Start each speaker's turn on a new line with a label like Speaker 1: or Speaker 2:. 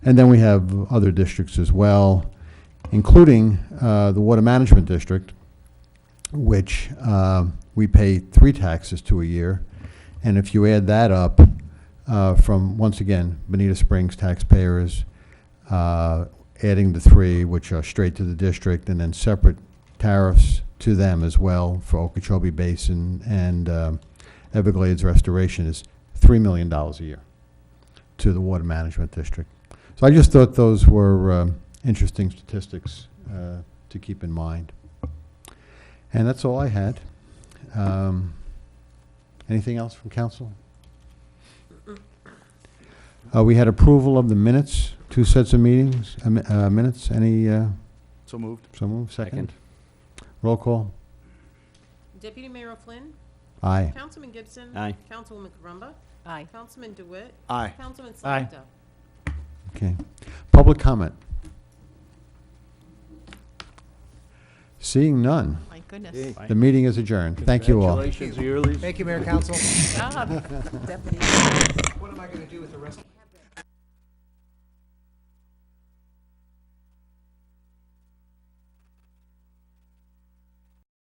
Speaker 1: And then we have other districts as well, including uh, the Water Management District, which um, we pay three taxes to a year. And if you add that up uh, from, once again, Bonita Springs taxpayers, uh, adding the three, which are straight to the district, and then separate tariffs to them as well for Okeechobee Basin and um, Everglades Restoration is $3 million a year to the Water Management District. So I just thought those were um, interesting statistics uh, to keep in mind. And that's all I had. Um, Anything else from council? Uh, We had approval of the minutes, two sets of meetings, uh, mi- uh, minutes. Any, uh,
Speaker 2: So moved.
Speaker 1: so move, second? Roll call?
Speaker 3: Deputy Mayor O'Flynn,
Speaker 1: Aye.
Speaker 3: Councilman Gibson.
Speaker 2: Aye.
Speaker 3: Councilwoman Corumba.
Speaker 4: Aye.
Speaker 3: Councilman DeWitt.
Speaker 2: Aye.
Speaker 3: Councilman
Speaker 2: Aye.
Speaker 3: Slakda.
Speaker 1: Okay. Public comment? Seeing none,
Speaker 4: My goodness.
Speaker 1: the meeting is adjourned. Thank you all.
Speaker 2: Congratulations, Earlys.
Speaker 5: Thank you, Mayor Council.
Speaker 4: Good job, Deputy.
Speaker 5: What am I going to do with the rest?